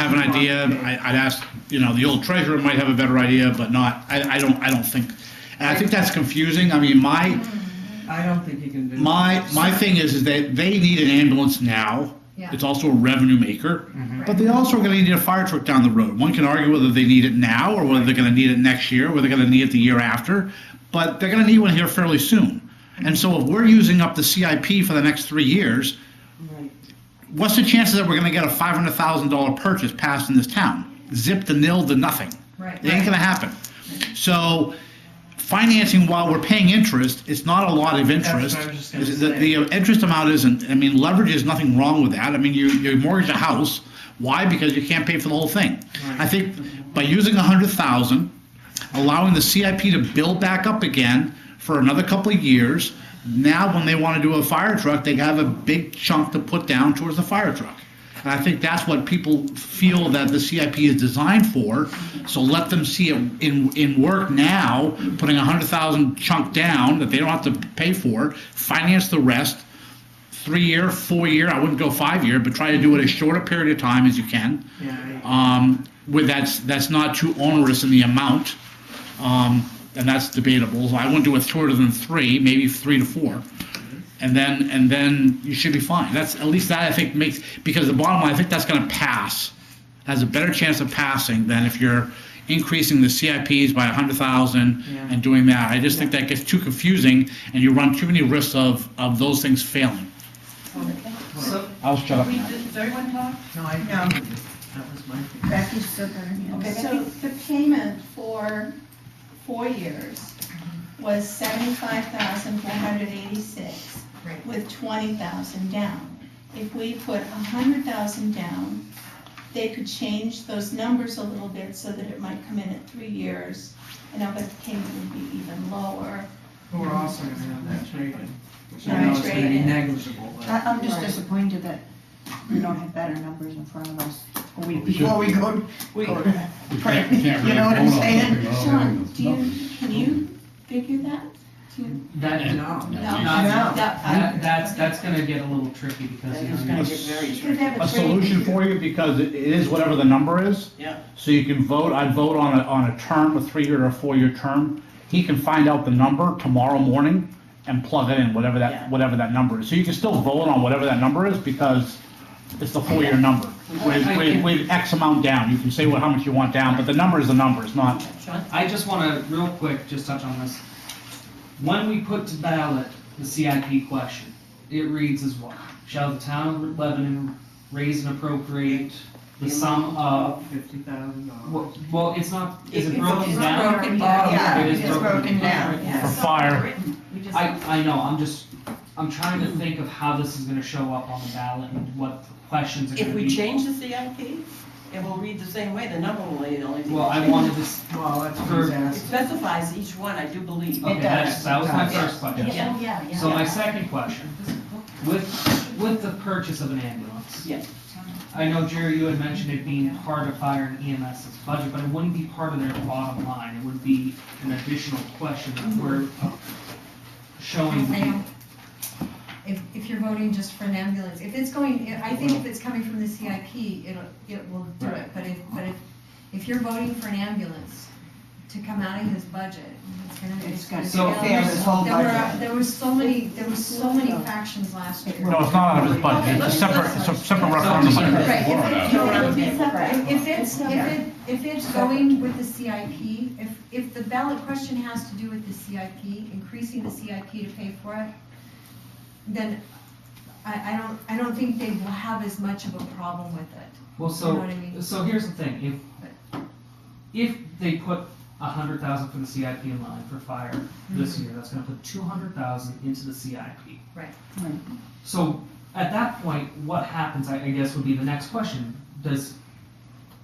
have an idea. I, I'd ask, you know, the old treasurer might have a better idea, but not, I, I don't, I don't think. And I think that's confusing. I mean, my, I don't think you can do. my, my thing is, is that they need an ambulance now. Yeah. It's also a revenue maker, but they also are gonna need a fire truck down the road. One can argue whether they need it now or whether they're gonna need it next year, whether they're gonna need it the year after, but they're gonna need one here fairly soon. And so if we're using up the CIP for the next three years, Right. what's the chances that we're gonna get a five hundred thousand dollar purchase passed in this town? Zip to nil to nothing. Right. It ain't gonna happen. So financing while we're paying interest, it's not a lot of what I was interest. just gonna The, the interest amount isn't, I mean, leverage is nothing wrong with that. I mean, you, you mortgage a house. Why? Because you can't pay for the whole thing. I think by using a hundred thousand, allowing the CIP to build back up again for another couple of years, now when they wanna do a fire truck, they have a big chunk to put down towards the fire truck. And I think that's what people feel that the CIP is designed for. So let them see it in, in work now, putting a hundred thousand chunk down that they don't have to pay for, finance the rest, three year, four year, I wouldn't go five year, but try to do it as short a period of time as you can. Yeah, I- Um, with that's, that's not too onerous in the amount. Um, and that's debatable. I wouldn't do it shorter than three, maybe three to four. And then, and then you should be fine. That's, at least that I think makes, because the bottom line, I think that's gonna pass. Has a better chance of passing than if you're increasing the CIPs by a hundred thousand Yeah. and doing that. I just think that gets too confusing and you run too many risks of, of those things failing. So, I'll shut we, does everyone talk? no, I, No. that was my thing. Becky's still got her hand. Okay, So Becky. the payment for four years was seventy-five thousand four hundred eighty-six Right. with twenty thousand down. If we put a hundred thousand down, they could change those numbers a little bit so that it might come in at three years and I bet the payment would be even lower. But We're also gonna have that traded. Which Right, I know is gonna be traded. negligible, I, but. I'm just Right. disappointed that we don't have better numbers in front of us a week We should. before we go, we go to print, we you can't really know what I'm vote on saying? something without Sean, having do you, numbers. can you figure that? Do you? That, no. No. Not- That- I- That, that's, that's gonna get a little tricky because, you know, Could have a it traded. solution for you because it it is whatever the number is. Yeah. So you can vote, I'd vote on a, on a term, a three-year or a four-year term. He can find out the number tomorrow morning and plug it in, whatever Yeah. that, whatever that number is. So you can still vote on whatever that number is because it's the four-year number. With, I- I with, can- with X amount down, you can say what, how much you want down, but the number is the number, it's not, I just wanna, real quick, just touch on this. When we put to ballot the CIP question, it reads as what? Shall the town of Lebanon raise and appropriate the sum of? Fifty thousand uh, Well, well, it's not, is it It's- broken it's down? broken down. Yeah, It is it's broken down, for yes. fire. We just- Hmm. I, I know, I'm just, I'm trying to think of how this is gonna show up on the ballot and what questions are gonna If be. we change the CIP, it will read the same way, the number will only, the only thing. Well, I wanted to, s- Well, that's what For- he's It asking. specifies each one, I do believe. okay, that's, that was my does. first question. Yeah, yeah, yeah. So my second question, with, with the purchase of an ambulance. Yes. I know, Jerry, you had mentioned it being part of fire and EMS's budget, but it wouldn't be part of their bottom line. It would be an additional question that we're showing. Ma'am, If, if you're voting just for an ambulance, if it's going, I think if it's coming from the CIP, it'll, it will do it. But if, but if, if you're voting for an ambulance to come out of his budget, it's gonna. It's gonna So- tear his whole There were, budget. there were so many, there were so many factions last year. No, it's not out of his budget, it's a separate, it's a separate referendum. budget. Right, if- Warrant if- out. if- If it's, if it, if it's going with the CIP, if, if the ballot question has to do with the CIP, increasing the CIP to pay for it, then I, I don't, I don't think they will have as much of a problem with it. Well, You know so, what I mean? so here's the thing, if, if they put a hundred thousand for the CIP in line for fire this year, that's gonna put two hundred thousand into the CIP. Right. Right. So, at that point, what happens, I, I guess, would be the next question, does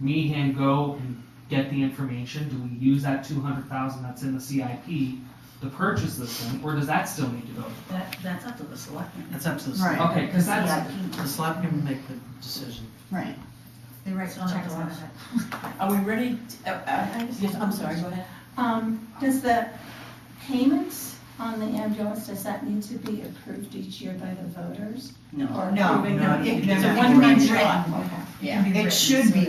Meehan go and get the information, do we use that two hundred thousand that's in the CIP to purchase this thing, or does that still need to go? That, that's up to the selectmen. That's up to the Right. select, Okay, cause that's, the selectmen make the decision. Right. They write the checks on it. Are we ready? to- uh, uh, Yes, I'm sorry, go ahead. Um, does the payment on the ambulance, does that need to be approved each year by the voters? No. Or No, approving no, them? it- It's a no, no, one-time it's shot. It should be